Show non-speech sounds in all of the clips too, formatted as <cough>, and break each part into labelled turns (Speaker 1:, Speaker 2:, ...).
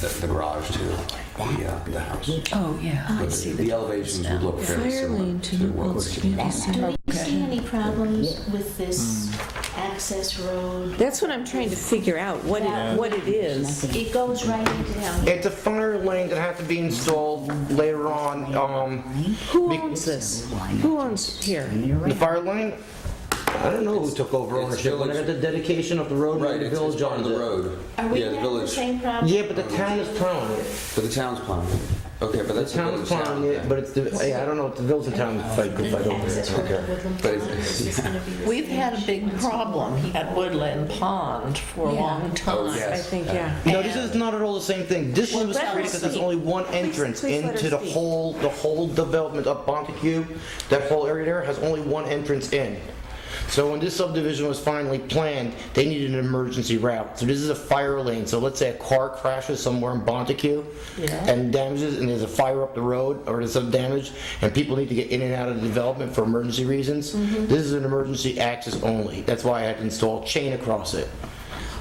Speaker 1: the, the garage to the, uh, the house.
Speaker 2: Oh, yeah, I
Speaker 1: But
Speaker 2: see
Speaker 1: the,
Speaker 2: the
Speaker 1: the elevations would look fairly
Speaker 3: Fire
Speaker 1: similar
Speaker 3: lane
Speaker 1: to
Speaker 3: to
Speaker 1: what
Speaker 3: Old
Speaker 1: was.
Speaker 3: Community
Speaker 4: Do
Speaker 3: Center.
Speaker 4: we see any problems with this
Speaker 5: Hmm.
Speaker 4: access road?
Speaker 3: That's what I'm trying to figure out, what it, what it is.
Speaker 4: It goes right into town.
Speaker 5: It's a fire lane that had to be installed later on. Um,
Speaker 3: Who owns this? Who owns here?
Speaker 5: the fire lane, I don't know who took over
Speaker 1: It's
Speaker 5: ownership, but
Speaker 1: village-
Speaker 5: at the dedication of the road,
Speaker 1: Right,
Speaker 5: the
Speaker 1: it's it's
Speaker 5: village
Speaker 1: part
Speaker 5: on
Speaker 1: of the road.
Speaker 4: Are we
Speaker 1: Yeah, the
Speaker 4: having the
Speaker 1: village,
Speaker 4: same problem?
Speaker 5: Yeah, but the town is plowing it.
Speaker 1: but the town's plowing it. Okay, but
Speaker 5: The
Speaker 1: that's the
Speaker 5: town is
Speaker 1: village
Speaker 5: plowing
Speaker 1: now.
Speaker 5: it, but it's the, hey, I don't know, the village and town fight good fight over
Speaker 4: Access
Speaker 5: it.
Speaker 4: road to Woodland
Speaker 1: But
Speaker 4: Pond
Speaker 1: it's-
Speaker 4: is gonna be.
Speaker 2: We've had a big
Speaker 4: restricted.
Speaker 2: problem at Woodland Pond for a long
Speaker 1: Oh,
Speaker 2: time.
Speaker 1: yes.
Speaker 3: I think, yeah.
Speaker 5: No, this is not at all the same thing. This one was
Speaker 3: let her
Speaker 5: created because there's
Speaker 3: speak.
Speaker 5: only one
Speaker 3: Please-
Speaker 5: entrance
Speaker 3: please let her
Speaker 5: into the
Speaker 3: speak.
Speaker 5: whole, the whole development of Montague. That whole area there has only one entrance in. So when this subdivision was finally planned, they needed an emergency route. So this is a fire lane. So let's say a car crashes somewhere in Montague
Speaker 2: Yeah.
Speaker 5: and damages, and there's a fire up the road or there's some damage, and people need to get in and out of the development for emergency reasons.
Speaker 3: Mm-hmm.
Speaker 5: This is an emergency access only. That's why I had to install chain across it.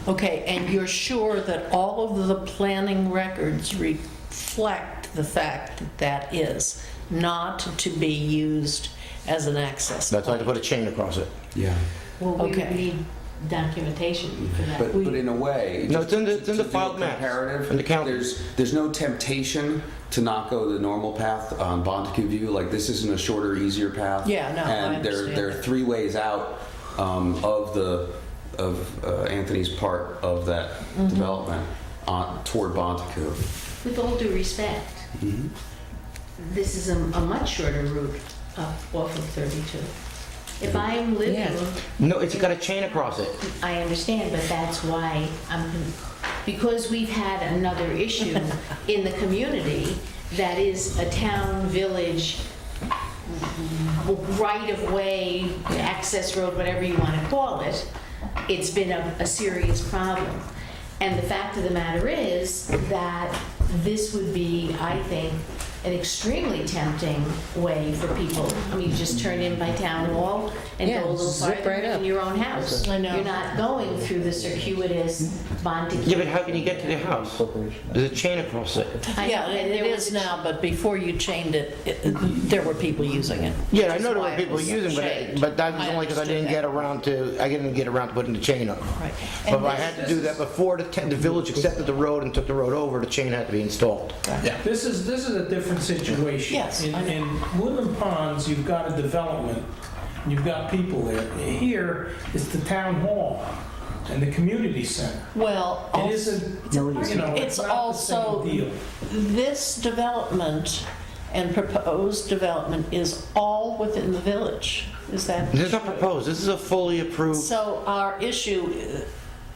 Speaker 2: Okay, and you're sure that all of the planning records reflect the fact that that is not to be used as an access?
Speaker 5: That's why I had to put a chain across it.
Speaker 1: Yeah.
Speaker 6: Well, we would
Speaker 2: Okay.
Speaker 6: need documentation for that.
Speaker 1: But, but in a way.
Speaker 5: No,
Speaker 1: just
Speaker 5: it's in the- it's
Speaker 1: to-
Speaker 5: in the
Speaker 1: to do a
Speaker 5: filed maps,
Speaker 1: Comparative.
Speaker 5: in the county.
Speaker 1: There's, there's no temptation to not go the normal path on Bontecue View, like this isn't a shorter, easier path.
Speaker 2: Yeah, no, I
Speaker 1: And there,
Speaker 2: understand
Speaker 1: there are
Speaker 2: that.
Speaker 1: three ways out um, of the, of uh, Anthony's part of that
Speaker 5: Mm-hmm.
Speaker 1: development on, toward Bontecue.
Speaker 6: With all due respect,
Speaker 1: Mm-hmm.
Speaker 6: this is a, a much shorter route up off of 32.
Speaker 1: Mm-hmm.
Speaker 6: If I'm living,
Speaker 5: No, it's got a chain across it.
Speaker 6: I understand, but that's why I'm, because we've had another
Speaker 3: <laughs>
Speaker 6: issue in the community that is a town, village, right-of-way, access road, whatever you want to call it, it's been a, a serious problem. And the fact of the matter is that this would be, I think, an extremely tempting way for people. I mean, you just turn in by town hall and go
Speaker 3: Yeah,
Speaker 6: a little
Speaker 3: zip
Speaker 6: farther
Speaker 3: right up.
Speaker 6: in your own house.
Speaker 2: I know.
Speaker 6: You're not going through the circuitous Montague.
Speaker 5: Yeah, but how can you get to the house? There's a chain across it.
Speaker 6: I know,
Speaker 2: Yeah,
Speaker 6: and
Speaker 2: it
Speaker 6: there was
Speaker 2: is
Speaker 6: a-
Speaker 2: now, but before you chained it, it- there were people using it.
Speaker 5: Yeah, I
Speaker 2: Which
Speaker 5: know there
Speaker 2: is
Speaker 5: were
Speaker 2: why
Speaker 5: people
Speaker 2: it was
Speaker 5: using, but, I-
Speaker 2: chained.
Speaker 5: but that was only because I didn't get
Speaker 2: understood
Speaker 5: around to, I didn't get around to putting the chain up.
Speaker 2: that. Right. And
Speaker 5: But I had to do that before the, te- the village accepted the road and took the road over, the chain had to be installed.
Speaker 7: This is, this is a different situation.
Speaker 2: Yes,
Speaker 7: In,
Speaker 2: I know.
Speaker 7: in Woodland Ponds, you've got a development, and you've got people there. Here is the town hall and the community center.
Speaker 2: Well,
Speaker 7: It isn't, you know,
Speaker 2: It's
Speaker 7: it's not the
Speaker 2: also-
Speaker 7: same deal.
Speaker 2: this development and proposed development is all within the village, is that?
Speaker 5: This is not proposed, this is a fully approved,
Speaker 2: So our issue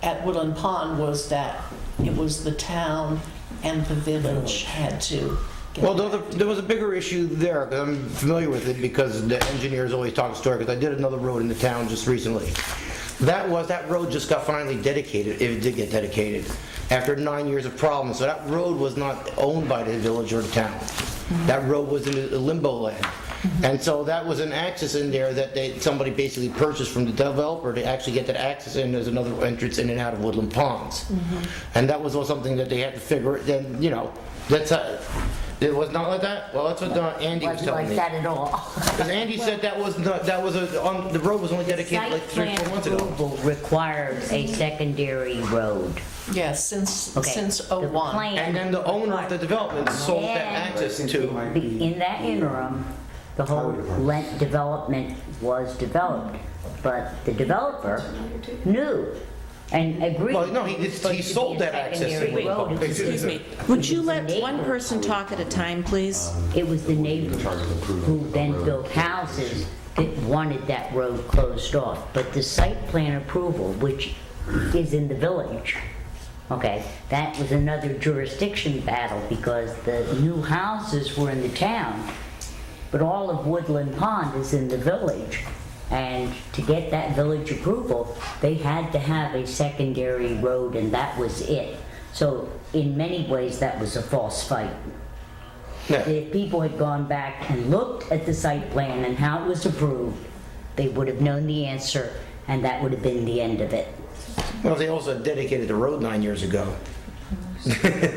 Speaker 2: uh, at Woodland Pond was that it was the town and the village had to. get-
Speaker 5: well, there was a- there was a bigger issue there, because I'm familiar with it, because the engineers always talk story, because I did another road in the town just recently. That was, that road just got finally dedicated, if it did get dedicated, after nine years of problems. So that road was not owned by the village or the town. That road was in a limbo land. And so that was an access in there that they, somebody basically purchased from the developer to actually get that access in, there's another entrance in and out of Woodland Ponds. And that was all something that they had to figure, then, you know, that's, how- it was not like that? Well, that's what uh, Andy was
Speaker 8: wasn't
Speaker 5: telling
Speaker 8: like
Speaker 5: me.
Speaker 8: that at all.
Speaker 5: Because Andy said that was not, that was a, on, the road was only dedicated like three, or four months ago.
Speaker 8: approval requires a secondary road.
Speaker 2: Yes, since,
Speaker 8: Okay.
Speaker 2: since
Speaker 8: The
Speaker 2: '01.
Speaker 8: plan-
Speaker 5: And then the owner of the development sold that
Speaker 8: Yeah.
Speaker 5: access to,
Speaker 8: In that interim, the whole Lent development was developed, but the developer knew and agreed.
Speaker 5: well, no, he, he sold that access. to
Speaker 8: Secondary road.
Speaker 3: Excuse me, Would you
Speaker 8: let
Speaker 3: one
Speaker 8: person
Speaker 3: talk at a time, please?
Speaker 8: It was the
Speaker 1: In
Speaker 8: neighbors
Speaker 1: charge of approval
Speaker 8: who
Speaker 1: of the
Speaker 8: then
Speaker 1: road.
Speaker 8: built houses that wanted that road closed off. But the site plan approval, which is in the village, okay, that was another jurisdiction battle because the new houses were in the town, but all of Woodland Pond is in the village. And to get that village approval, they had to have a secondary road and that was it. So in many ways, that was a false fight.
Speaker 5: Yeah.
Speaker 8: If people had gone back and looked at the site plan and how it was approved, they would have known the answer, and that would have been the end of it.
Speaker 5: Well, they also dedicated the road nine years ago.